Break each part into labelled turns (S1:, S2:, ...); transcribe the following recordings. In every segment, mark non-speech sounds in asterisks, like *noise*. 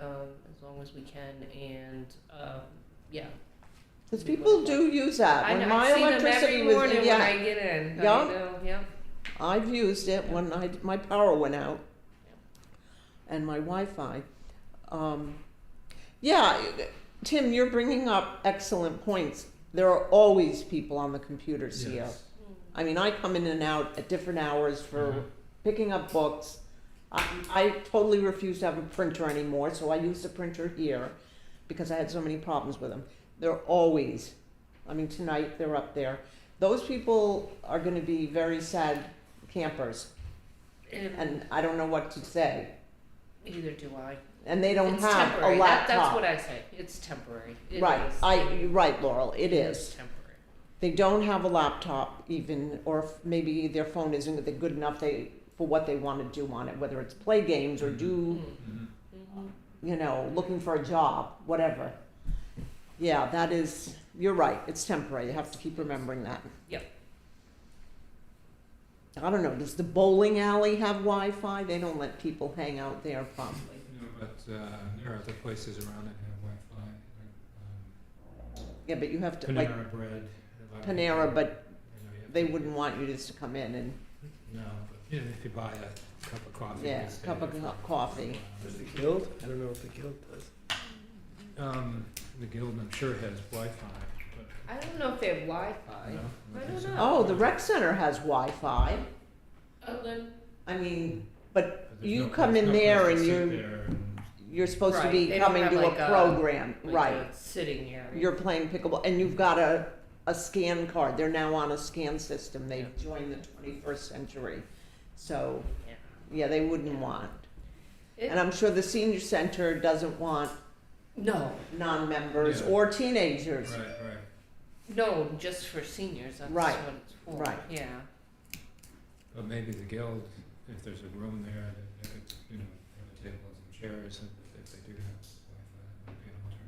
S1: um, as we can and, um, yeah.
S2: Because people do use that.
S1: I
S2: Uh, When
S1: know-
S2: my electricity was,
S1: I see them every morning when
S2: yeah,
S1: I get in,
S2: Yeah.
S1: I know, yeah.
S2: I've used it
S1: Yeah.
S2: when I, my power went out. And my Wi-Fi. Um, yeah, Tim, you're bringing up excellent points. There are always people on the computers here.
S3: Yes.
S2: I mean, I come in and out at different hours for
S3: Mhm.
S2: picking up books. I, I totally refuse to have a printer anymore, so I use the printer here because I had so many problems with them. They're always, I mean, tonight they're up there. Those people are going to be very sad campers,
S1: And
S2: and I don't know what to say.
S1: either do I.
S2: And they don't
S1: It's
S2: have
S1: temporary.
S2: a
S1: That-
S2: laptop.
S1: That's what I say, it's temporary. It
S2: right,
S1: is.
S2: I
S1: It-
S2: you're right, Laurel. It is.
S1: Temporary.
S2: They don't have a laptop even, or if maybe their phone isn't good enough they, for what they want to do on it, whether it's play games or do,
S1: Mm,
S3: Mhm.
S1: mhm.
S2: you know, looking for a job, whatever. Yeah, that is, you're right, it's temporary, you have to keep remembering that.
S1: Yep.
S2: I don't know, does the bowling alley have Wi-Fi? They don't let people hang out there probably.
S3: No, but, uh, there are other places around that have Wi-Fi, like,
S2: Yeah, but you have to,
S3: um,
S2: like
S3: Panera Bread. a lot of
S2: Panera,
S3: people-
S2: but
S3: I know you have
S2: they
S3: to-
S2: wouldn't want you just to come in and,
S3: No, but, you know, if you buy a cup of coffee. you
S2: yeah,
S3: can stay
S2: cup of
S3: there for
S2: co-
S3: a
S2: coffee.
S3: while.
S4: Does the guild? I don't know if the guild does.
S3: Um, the guild, I'm sure, has Wi-Fi, but,
S1: I don't know if they have Wi-Fi.
S3: no?
S1: I
S3: think
S1: don't
S3: so.
S1: know.
S2: Oh, the rec center has Wi-Fi.
S1: Oh, then
S2: I mean,
S3: But there's
S2: you
S3: no-
S2: come
S3: there's
S2: in
S3: no
S2: there
S3: place to
S2: and
S3: sit
S2: you're-
S3: there and-
S2: you're supposed to
S1: Right,
S2: be
S1: they don't
S2: coming
S1: have
S2: to
S1: like
S2: a
S1: a-
S2: program,
S1: like
S2: right?
S1: a sitting area.
S2: You're playing pickleball, and you've got a, a scan card. They're now on a scan system. They
S1: Yeah.
S2: joined the 21st century, so
S1: Yeah.
S2: yeah, they wouldn't want.
S1: It-
S2: And I'm sure the senior center doesn't want
S1: no,
S2: non-members
S3: Yeah.
S2: or teenagers.
S3: Right, right.
S1: no, just for seniors. That's
S2: Right,
S1: what it's for.
S2: right.
S1: Yeah.
S3: But maybe the guild, if there's a room there, they- they could, you know, have a table and some chairs, and if they do have Wi-Fi, that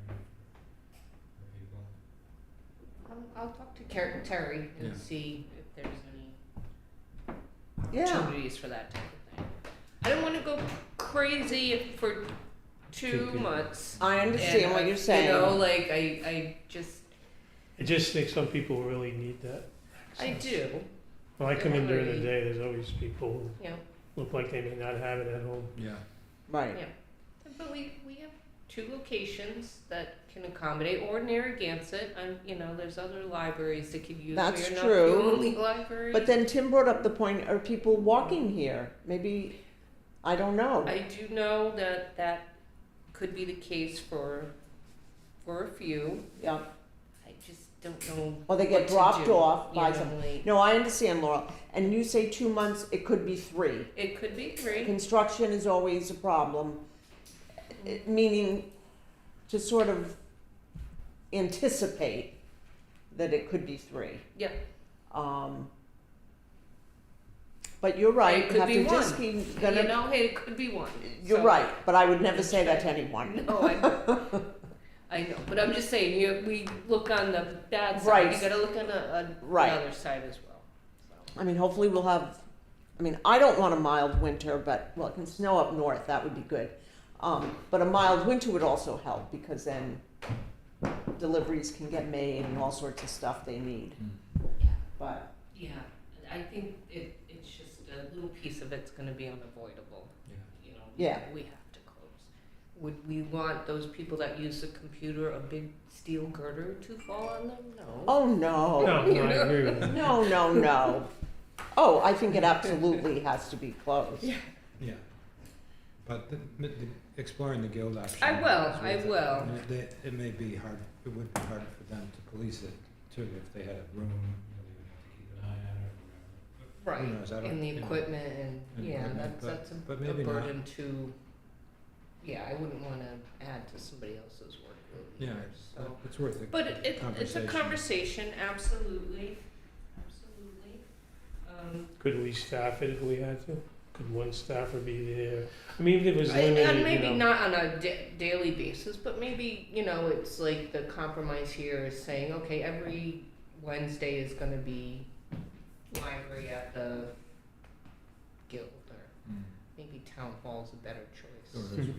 S3: would be an alternative for people.
S1: I'll, I'll talk to Ker- Terry and
S3: Yeah.
S1: see if there's any
S2: Yeah,
S1: opportunities for that type of thing. I don't want to go crazy if for
S3: Two
S1: two
S3: people.
S1: months.
S2: I understand
S1: and
S2: what
S1: I-
S2: you're saying.
S1: You know, like I, I just,
S4: I just think some people really need that.
S1: I
S4: access.
S1: do,
S4: When I come in during the
S1: Everybody-
S4: day, there's always people
S1: you know.
S4: who look like they may not have it at home.
S3: Yeah.
S2: right?
S1: But we, we have two locations that can accommodate, or Narragansett, and, you know, there's other libraries that could use.
S2: That's
S1: We are
S2: true.
S1: Not the only library.
S2: But then Tim brought up the point: Are people walking here? Maybe I don't know.
S1: I do know that that could be the case for, for a few.
S2: yeah.
S1: I just don't know.
S2: Or they
S1: what
S2: get
S1: to
S2: dropped
S1: do,
S2: off
S1: you
S2: by
S1: know,
S2: some.
S1: like-
S2: No, I understand, Laurel. And you say two months, it could be three.
S1: It could be three.
S2: Construction is always a problem, it- meaning to sort of anticipate that it could be three.
S1: Yeah.
S2: Um, but you're right.
S1: It could
S2: have
S1: be
S2: to just
S1: one.
S2: keep
S1: You
S2: gonna-
S1: know, hey, it could be one.
S2: you're
S1: So- *laughs*
S2: right, but I would never say that to anyone.
S1: No, I, I know, but I'm just saying, you, we look on the bad side,
S2: Right.
S1: you gotta look on the, on the
S2: Right.
S1: other side as well, so.
S2: I mean, hopefully we'll have. I mean, I don't want a mild winter, but well, it can snow up north. That would be good. Um, but a mild winter would also help because then deliveries can get made and all sorts of stuff they need.
S3: Hmm.
S2: But
S1: Yeah, I think it, it's just a little piece of it's gonna be unavoidable,
S3: Yeah.
S1: you know,
S2: Yeah.
S1: we have to close. Would we want those people that use the computer a big steel girder to fall on them? No.
S2: oh no,
S4: No,
S1: *laughs*
S4: no, I agree with that.
S2: no, no, no. Oh, I think it absolutely has to be closed.
S3: Yeah. But the, the, the- exploring the guild option.
S1: I will,
S3: is
S1: I
S3: worth it.
S1: will.
S3: And it- they- It may be hard, it would be hard for them to police it too, if they had a room, you know, they would have to keep an eye on it or whatever. Who knows, I don't.
S1: And the
S3: you know.
S1: equipment and,
S3: And
S1: yeah,
S3: equipment,
S1: that's,
S3: but-
S1: that's a-
S3: but
S1: a
S3: maybe not.
S1: burden to, yeah, I wouldn't wanna add to somebody else's workload
S3: Yeah,
S1: either, so.
S3: But It's worth it.
S1: But it, it, it's a conversation, absolutely, absolutely. Um,
S4: Could we staff it if we had to? Could one staffer be there? I mean, if it was
S1: I- and
S4: limited,
S1: maybe
S4: you know.
S1: not on a da- daily basis, but maybe, you know, it's like the compromise here is saying, okay, every Wednesday is gonna be library at the guild, or
S3: Mm. Hmm.
S1: maybe town hall's a better choice.
S3: Or as we